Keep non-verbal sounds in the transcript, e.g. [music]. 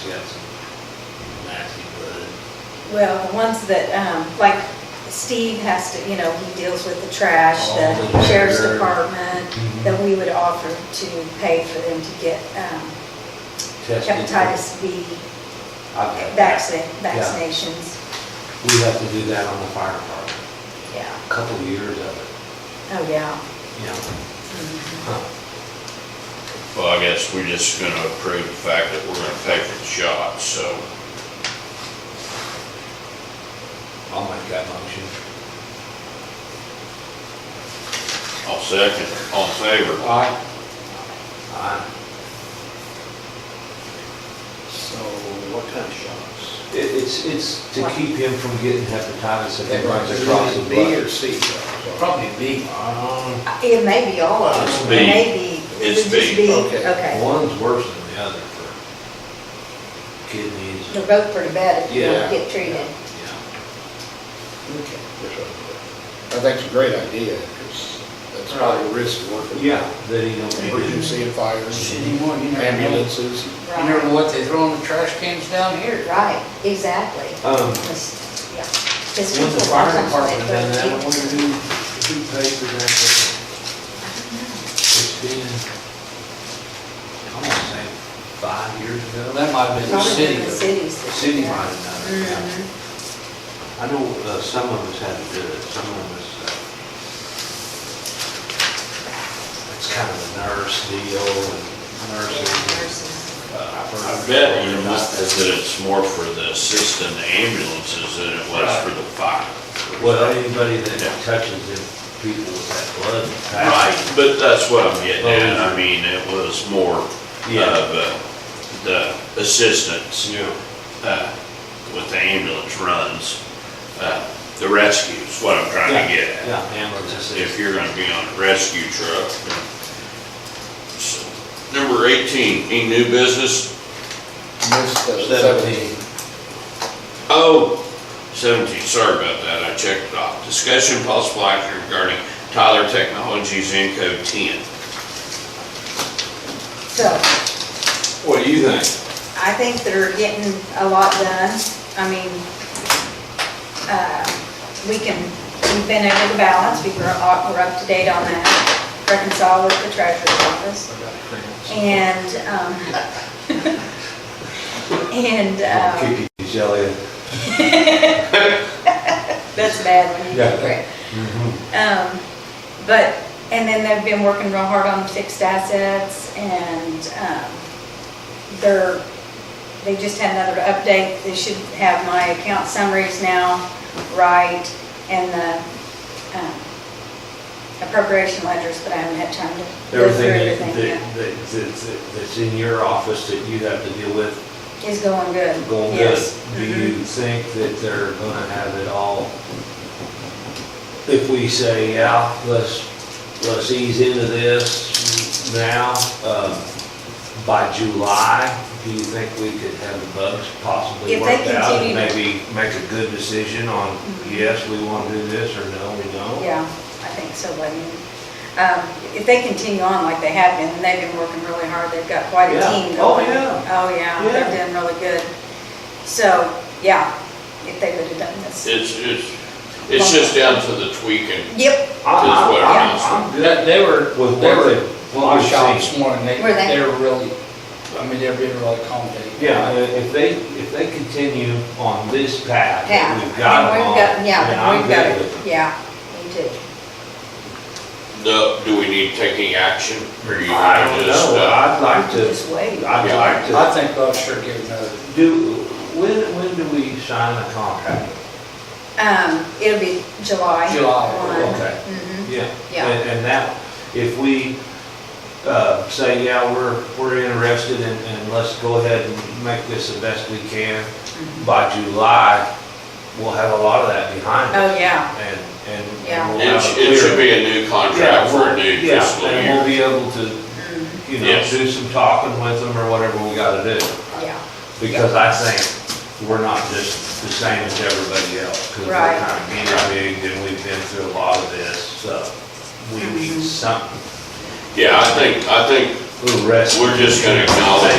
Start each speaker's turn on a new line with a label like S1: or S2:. S1: She got some nasty blood.
S2: Well, the ones that, um, like Steve has to, you know, he deals with the trash,
S1: All
S3: Oh,
S2: the
S1: the
S2: sheriff's
S1: dirt.
S2: department,
S3: Mm-hmm.
S2: that we would offer to pay for them to get um,
S1: Tested.
S2: hepatitis B
S1: I've got-
S2: vaccine, vaccinations.
S1: We have to do that on the fire department,
S2: Yeah,
S1: a couple of years of it,
S2: oh, yeah.
S1: you know.
S2: Mhm.
S1: Huh.
S3: Well, I guess we're just gonna approve the fact that we're gonna pay for the shots, so
S1: I'll make that motion.
S3: I'll second, all in favor.
S1: Aye. Aye.
S4: So what kind of shots?
S1: It, it's, it's to
S2: What?
S1: keep him from getting hepatitis if he runs
S4: Is it
S1: across the
S4: B or
S1: blood. Uh,
S4: C shots?
S1: Probably B.
S4: Um,
S2: It may be all of them.
S3: It's
S2: It
S3: B.
S2: may be.
S3: It's
S2: It would just
S3: B.
S2: be-
S4: Okay.
S2: Okay.
S1: One's worse than the other for kidneys.
S2: They're both pretty bad if you
S1: Yeah.
S2: don't get treated.
S1: Yeah.
S4: okay. That's right. I think it's a great idea, because that's probably a risk of working.
S1: Yeah, that he don't.
S4: Emergency and fires,
S5: Shit, you want- you never know.
S4: ambulances.
S5: You never know what they throw in the trash cans down here.
S2: Right, exactly.
S1: Um,
S2: Because, yeah. 'Cause
S1: When the
S2: people
S1: fire
S2: sometimes
S1: department
S2: they
S1: done that, I
S2: put-
S1: wonder who, who paid for that? It's been, I want to say five years
S5: Well,
S1: ago.
S5: that might have been the
S2: Probably
S5: city.
S2: in the
S5: but-
S2: cities.
S1: The
S2: that-
S1: city might have done it, yeah.
S2: Mhm.
S1: I know uh, some of us had to do it, some of us, uh, it's kind of a nurse deal and nurses.
S2: Nurses.
S3: I bet you know, that it's more for the assist in the ambulances than it was for the fire.
S1: Well, anybody that touches them people with that blood.
S3: Right, but that's what I'm getting at, I mean, it was more of
S1: Yeah.
S3: uh, the assistance
S1: Yeah.
S3: uh, with the ambulance runs, uh, the rescues, what I'm trying to get at.
S1: Yeah, ambulances.
S3: if you're gonna be on a rescue truck. Number eighteen, any new business?
S4: Missed the
S1: Seventeen.
S3: Oh, seventeen, sorry about that, I checked it off. Discussion possible action regarding Tyler Technologies in code ten.
S2: So,
S3: What do you think?
S2: I think they're getting a lot done. I mean, uh, we can, we've been over the balance, we were, up- we're up to date on that, reconcile with the treasurer's office. And, um, and, um, [laughs]
S1: Kicking his jelly.
S2: that's bad when you
S1: Yeah.
S2: get it. Um, but, and then they've been working real hard on fixed assets and, um, they're, they just had another update. They should have my account summaries now right and the, um, appropriation ledgers, but I haven't had time to go through
S1: Everything that,
S2: everything
S1: that, that's- that's in your office that you have to deal with,
S2: yet. Is going good.
S1: going good.
S2: Yes. Mm-hmm.
S1: Do you think that they're gonna have it all? If we say, yeah, let's, let's ease into this now, um, by July, do you think we could have the bugs possibly
S2: If they
S1: worked out? And
S2: continue to- Mm-hmm.
S1: maybe make a good decision on, yes, we wanna do this, or no, we don't?
S2: Yeah, I think so, but, um, if they continue on like they have been, and they've been working really hard, they've got quite a
S1: Yeah.
S2: team
S1: Oh,
S2: going.
S1: yeah.
S2: Oh, yeah, they're
S1: Yeah.
S2: doing really good. So, yeah, if they would have done this.
S3: It's, it's, it's just down to the tweaking.
S2: Yep,
S1: I- I-
S3: what
S1: I'm-
S3: it is.
S1: I'm good.
S5: That, they were,
S1: With
S5: they
S1: what
S5: were,
S1: they-
S5: well,
S1: what
S5: I
S1: we've
S5: shot
S1: seen.
S5: this morning, they,
S2: Were they?
S5: they were really, I mean, they've been really accommodating.
S1: Yeah, i- if they, if they continue on this path
S2: yeah.
S1: that we've got them on, then
S2: Yeah,
S1: I'm
S2: we've got
S1: good with
S2: it,
S1: them.
S2: yeah, me too.
S3: No, do we need taking action? Or you
S1: I
S3: wanna
S1: don't
S3: just,
S1: know,
S3: uh,
S1: I'd like to,
S2: Just wait.
S1: I'd
S3: Yeah.
S1: like
S5: I
S1: to,
S5: think they'll sure give another,
S1: do, when, when do we sign a contract?
S2: Um, it'll be July.
S5: July,
S2: one.
S1: okay.
S2: Mhm.
S1: Yeah.
S2: Yeah.
S1: And, and that, if we, uh, say, yeah, we're, we're interested and, and let's go ahead and make this the best we can,
S2: Mm-hmm.
S1: by July, we'll have a lot of that behind us.
S2: Oh, yeah,
S1: And, and- and.
S2: Yeah.
S1: we'll
S3: It,
S1: have a
S3: sh- it
S1: clear-
S3: should be a new
S1: Yeah,
S3: contract for
S1: we'll-
S3: a new
S1: yeah,
S3: fiscal
S1: And
S3: year.
S1: we'll be able to,
S2: Mhm.
S1: you know,
S3: Yes.
S1: do some talking with them or whatever we gotta do.
S2: yeah,
S1: Because I think we're not just the same as everybody else. Because we're
S2: Right.
S1: kind of being big and we've been through a lot of this, so we
S2: Mm-hmm.
S1: need something,
S3: Yeah, I think, I think
S1: a little rest.
S3: We're just gonna acknowledge